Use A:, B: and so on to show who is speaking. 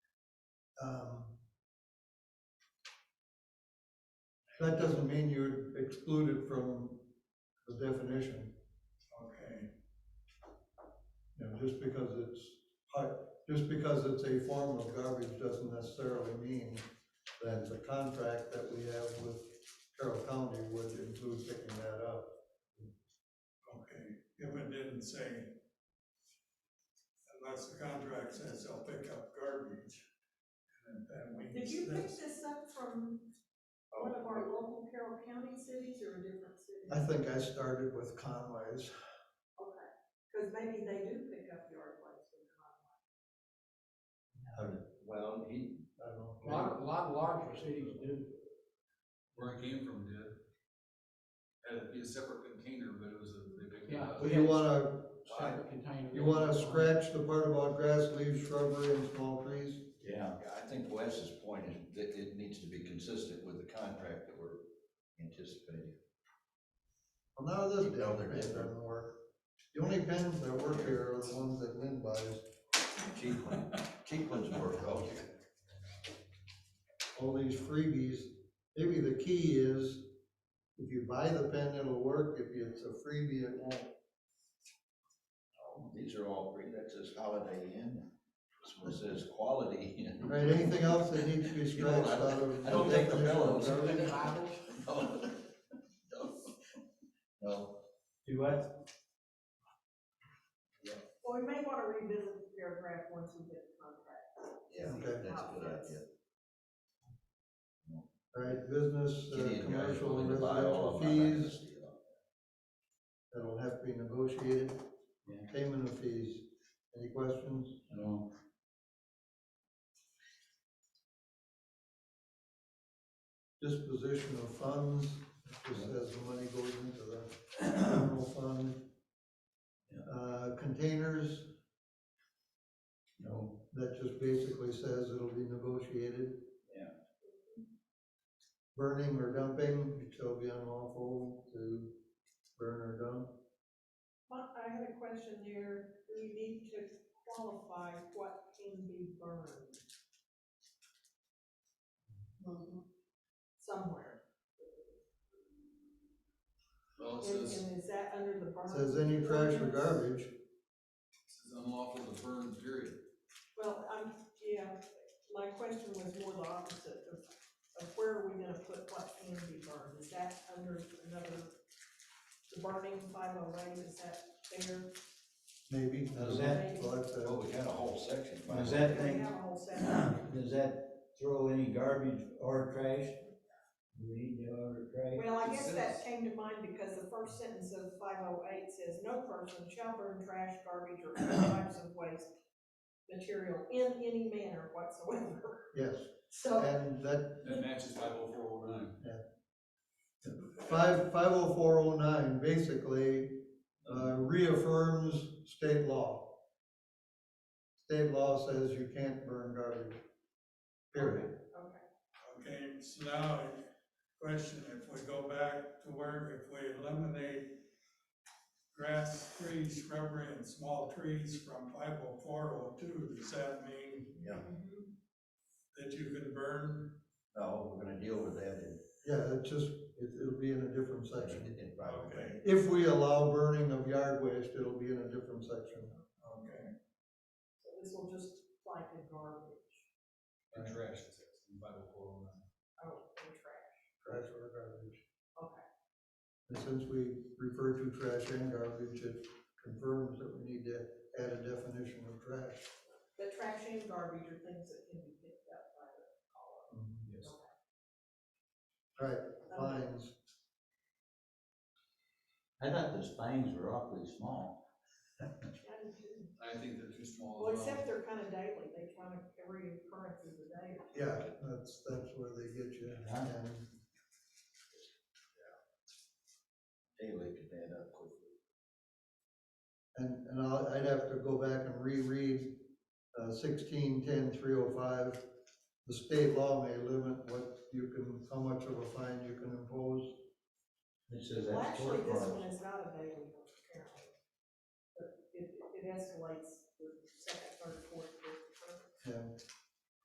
A: um, That doesn't mean you're excluded from the definition,
B: Okay,
A: you know, just because it's, part- just because it's a form of garbage doesn't necessarily mean that the contract that we have with Carroll County would include picking that up.
B: okay, if it didn't say, unless the contract says they'll pick up garbage, and then we.
C: Did you pick this up from
A: Oh.
D: Oh,
C: one of our local Carroll County cities or a different city?
A: I think I started with Conway's.
C: Okay, because maybe they do pick up yard waste from Conway.
E: Well, he,
A: I don't
F: A
A: know.
F: lot, a lot larger cities do.
D: where it came from did. Had it be a separate container, but it was a, they picked it
F: Yeah.
D: up.
A: Well, you wanna,
F: separate containers.
A: you wanna scratch the part about grass, leaves, shrubbery, and small trees?
E: yeah, I think Wes's point is that it needs to be consistent with the contract that we're anticipating.
A: Well, none of this down there doesn't work. The only pens that work here are the ones that Lynn buys,
E: Cheap one, cheap ones work, oh,
A: all these freebies. Maybe the key is, if you buy the pen, it'll work, if it's a freebie, it won't.
E: Oh, these are all free, that says Holiday Inn, this one says Quality Inn.
A: Right, anything else that needs to be
E: You know,
A: scratched out of.
E: I don't take the
A: definition of
E: pillows.
A: garbage?
F: Bibles,
E: No,
G: Do what?
C: Well, we may want to revisit the paragraph once we get the contract.
E: yeah,
A: Okay.
E: that's a good idea.
A: Right, business, uh,
E: Kitty and Gary's
A: commercial, and
E: willing to buy
A: residential
E: all of my
A: fees,
E: breakfast, you know.
A: that'll have to be negotiated.
G: Yeah.
A: Payment of fees, any questions?
G: No.
A: disposition of funds, it just says the money goes into the general fund. Uh, containers,
G: No.
A: that just basically says it'll be negotiated.
G: Yeah.
A: Burning or dumping, it shall be unlawful to burn or dump.
C: But I had a question there, do we need to qualify what can be burned? Mm-hmm. Somewhere.
D: Well, it
C: And
D: says, it
C: and is that under the burn?
A: It Says any trash or
C: ordinance?
A: garbage,
D: says unlawful to burn, period.
C: Well, I'm, yeah, my question was more the opposite of, of where are we gonna put what can be burned? Is that under another, the burning five oh eight, is that there?
A: maybe. I don't
G: Is
A: know.
C: that-
A: Well, that's, uh,
E: Well, we had a whole section. by
G: Is
E: the way.
G: that
C: We
G: thing,
C: have a whole section.
G: does that throw any garbage or trash? Do we need to order trash?
C: Well, I
D: It
C: guess
D: says-
C: that came to mind because the first sentence of five oh eight says, no person shall burn trash, garbage, or other types of waste material in any manner whatsoever.
A: yes,
C: So,
A: and that
D: That matches five oh four oh nine.
A: Five, five oh four oh nine basically uh, reaffirms state law. State law says you can't burn garbage. Period.
C: okay.
B: Okay, so now, question, if we go back to where, if we eliminate grass, trees, shrubbery, and small trees from five oh four oh two, does that mean
E: Yeah,
C: Mm-hmm.
B: that you can burn?
E: no, we're gonna deal with that in,
A: Yeah, it just, it, it'll be in a different section.
E: in, in private.
B: Okay.
A: If we allow burning of yard waste, it'll be in a different section.
B: Okay,
C: So this will just apply to garbage,
D: And trash, it says, in five oh four oh nine.
C: oh, and trash,
A: Trash or garbage.
C: okay.
A: And since we refer to trash and garbage, it confirms that we need to add a definition of trash.
C: The trash and garbage are things that can be picked up by the caller. Um,
D: Yes.
A: Right, fines.
G: I thought those things were awfully small.
D: I think they're too small
C: Well,
D: as well.
C: except they're kind of daily, they kind of, every occurrence is a day.
A: Yeah, that's, that's where they get you.
G: Yeah.
A: And
E: Daily could add up quickly.
A: And, and I'll, I'd have to go back and reread, uh, sixteen, ten, three oh five. The state law may limit what you can, how much of a fine you can impose.
G: It says
C: Well,
G: that's
C: actually,
G: four
C: this
G: cars.
C: one is not a daily one, apparently. But it, it escalates with second, third, fourth, fifth,
A: And